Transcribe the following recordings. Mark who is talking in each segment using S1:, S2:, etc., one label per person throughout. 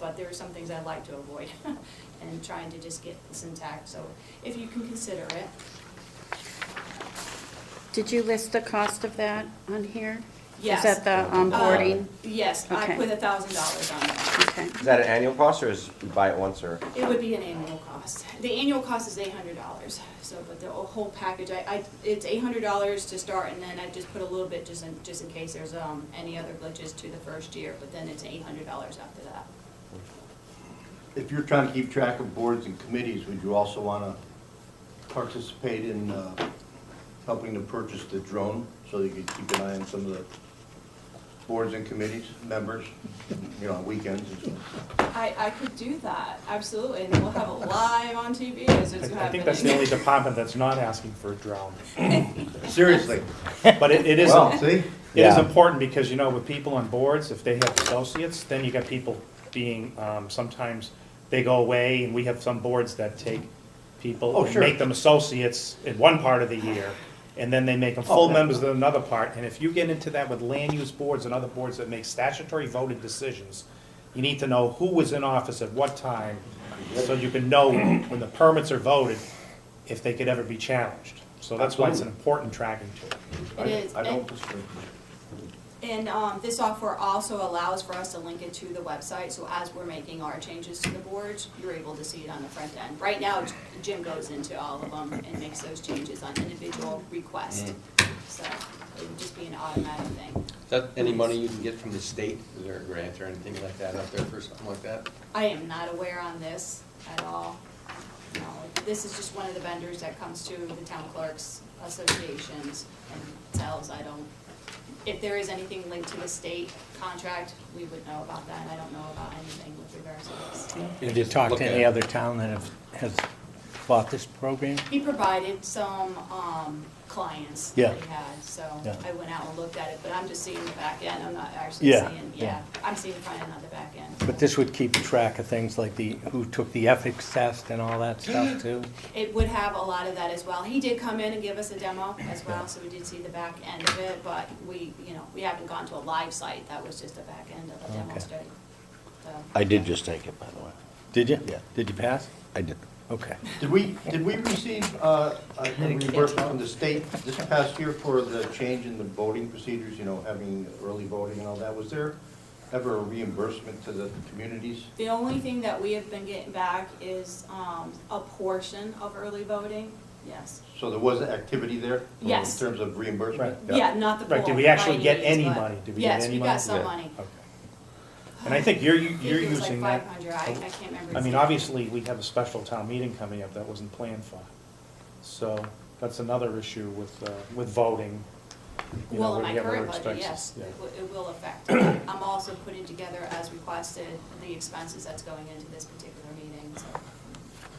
S1: but there are some things I'd like to avoid, and trying to just get this intact, so if you can consider it.
S2: Did you list the cost of that on here?
S1: Yes.
S2: Is that the onboarding?
S1: Uh, Yes, I
S2: Okay.
S1: put a thousand dollars on that.
S2: Okay,
S3: Is that an annual cost or is you buy it once or?
S1: It would be an annual cost. The annual cost is eight hundred dollars, so, but the whole package, I, I, it's eight hundred dollars to start, and then I just put a little bit just in, just in case there's, um, any other glitches to the first year, but then it's eight hundred dollars after that.
S4: If you're trying to keep track of boards and committees, would you also want to participate in uh, helping to purchase the drone so you could keep an eye on some of the boards and committees, members, you know, on weekends and stuff?
S1: I, I could do that, absolutely, and we'll have it live on TV as it's happening.
S5: I think that's the only department that's not asking for a drone.
S4: Seriously?
S5: But it it is,
S4: Well, see?
S5: it is
S6: Yeah.
S5: important because, you know, with people on boards, if they have associates, then you got people being, um, sometimes they go away and we have some boards that take people
S4: Oh,
S5: and
S4: sure.
S5: make them associates in one part of the year. And then they make them full
S4: Oh, yeah.
S5: members in another part. And if you get into that with land use boards and other boards that make statutory voted decisions, you need to know who was in office at what time, so you can know when the permits are voted, if they could ever be challenged. So that's why it's an important tracking tool.
S1: It is,
S4: I I don't
S1: and-
S4: disagree.
S1: And um, this software also allows for us to link it to the website, so as we're making our changes to the boards, you're able to see it on the front end. Right now, Jim goes into all of them and makes those changes on individual request, so it would just be an automatic thing.
S7: Is that any money you can get from the state? Is there a grant or anything like that out there for something like that?
S1: I am not aware on this at all. No, This is just one of the vendors that comes to the town clerks associations and tells, I don't, if there is anything linked to the state contract, we would know about that, and I don't know about anything with regards to this.
S6: Have you talked
S7: Look
S6: to
S7: at
S6: any
S7: it.
S6: other town that have, has bought this program?
S1: He provided some, um, clients
S6: Yeah.
S1: that he had, so
S6: Yeah.
S1: I went out and looked at it, but I'm just seeing the back end, I'm not actually
S6: Yeah,
S1: seeing, yeah,
S6: yeah.
S1: I'm seeing the front end, not the back end.
S6: But this would keep track of things like the, who took the ethics test and all that stuff too?
S1: It would have a lot of that as well. He did come in and give us a demo as well, so we did see the back end of it, but we, you know, we haven't gone to a live site. That was just the back end of a demo
S6: Okay.
S1: study. So,
S8: I did just take it, by the way.
S6: Did you?
S8: Yeah.
S6: Did you pass?
S8: I did.
S6: Okay.
S4: Did we, did we receive uh, a reimbursement from the state this past year for the change in the voting procedures, you know, having early voting and all that? Was there ever a reimbursement to the communities?
S1: The only thing that we have been getting back is um, a portion of early voting, yes.
S4: So there was activity there?
S1: Yes.
S4: In terms of reimbursement?
S1: Yeah, not the full.
S5: Right, did we actually
S1: by
S5: get
S1: any means,
S5: any
S1: but-
S5: money? Did we get
S1: Yes,
S5: any
S1: we got
S5: money?
S1: some
S5: Yeah.
S1: money.
S5: Okay. And I think you're,
S1: I think
S5: you're
S1: it was like
S5: using that.
S1: 500. I I can't remember.
S5: I mean,
S1: exactly.
S5: obviously, we have a special town meeting coming up that wasn't planned for. So that's another issue with, uh, with voting. you know,
S1: Well, in
S5: where
S1: my
S5: we have other
S1: current budget, yes,
S5: expenses.
S1: it
S5: Yeah.
S1: wi- it will affect. I'm also putting together, as requested, the expenses that's going into this particular meeting, so.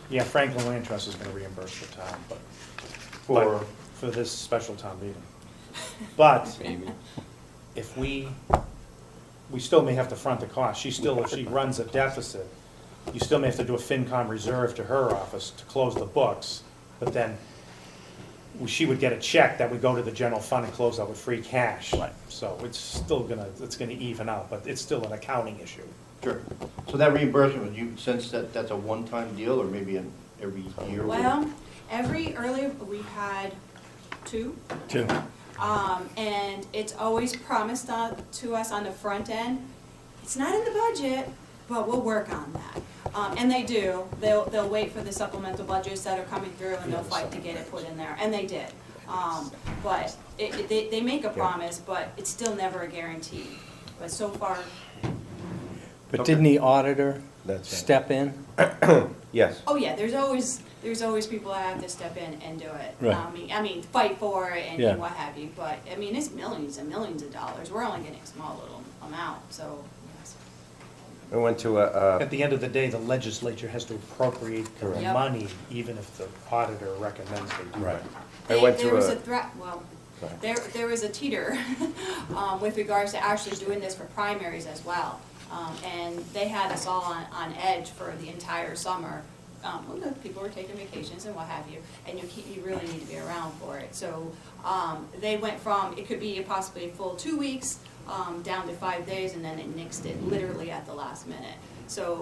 S5: Yeah, Franklin Land Trust is gonna reimburse the town, but,
S4: For-
S5: but for this special town meeting. But
S7: Maybe.
S5: if we, we still may have to front the cost, she still, if she runs a deficit, you still may have to do a FinCom reserve to her office to close the books, but then she would get a check that would go to the general fund and close out with free cash. Right. So it's still gonna, it's gonna even out, but it's still an accounting issue.
S4: Sure. So that reimbursement, you sense that that's a one-time deal or maybe an every year?
S1: Well, every early, we had two,
S6: Two.
S1: um, and it's always promised on- to us on the front end. It's not in the budget, but we'll work on that. Um, and they do, they'll, they'll wait for the supplemental budgets that are coming through and they'll fight to get it put in there, and they did. Um, but it, it- they, they make a promise, but it's still never a guarantee. But so far,
S6: But didn't the auditor
S3: That's it.
S6: step in?
S3: Yes.
S1: Oh, yeah, there's always, there's always people that have to step in and do it.
S6: Right.
S1: I mean, I mean, fight for it and-
S6: Yeah.
S1: and what have you, but, I mean, it's millions and millions of dollars. We're only getting a small little amount, so, yes.
S3: We went to a, uh,
S5: At the end of the day, the legislature has to appropriate the
S3: Correct.
S1: Yep.
S5: money, even if the auditor recommends they do.
S3: Right. I
S1: They-
S3: went
S1: There
S3: to
S1: was
S3: a-
S1: a threat, well,
S3: Sorry.
S1: there, there was a teeter um, with regards to actually doing this for primaries as well. Um, And they had us all on, on edge for the entire summer. Um, well, look, People were taking vacations and what have you, and you keep, you really need to be around for it. So um, they went from, it could be possibly a full two weeks, um, down to five days, and then it nixed it literally at the last minute. So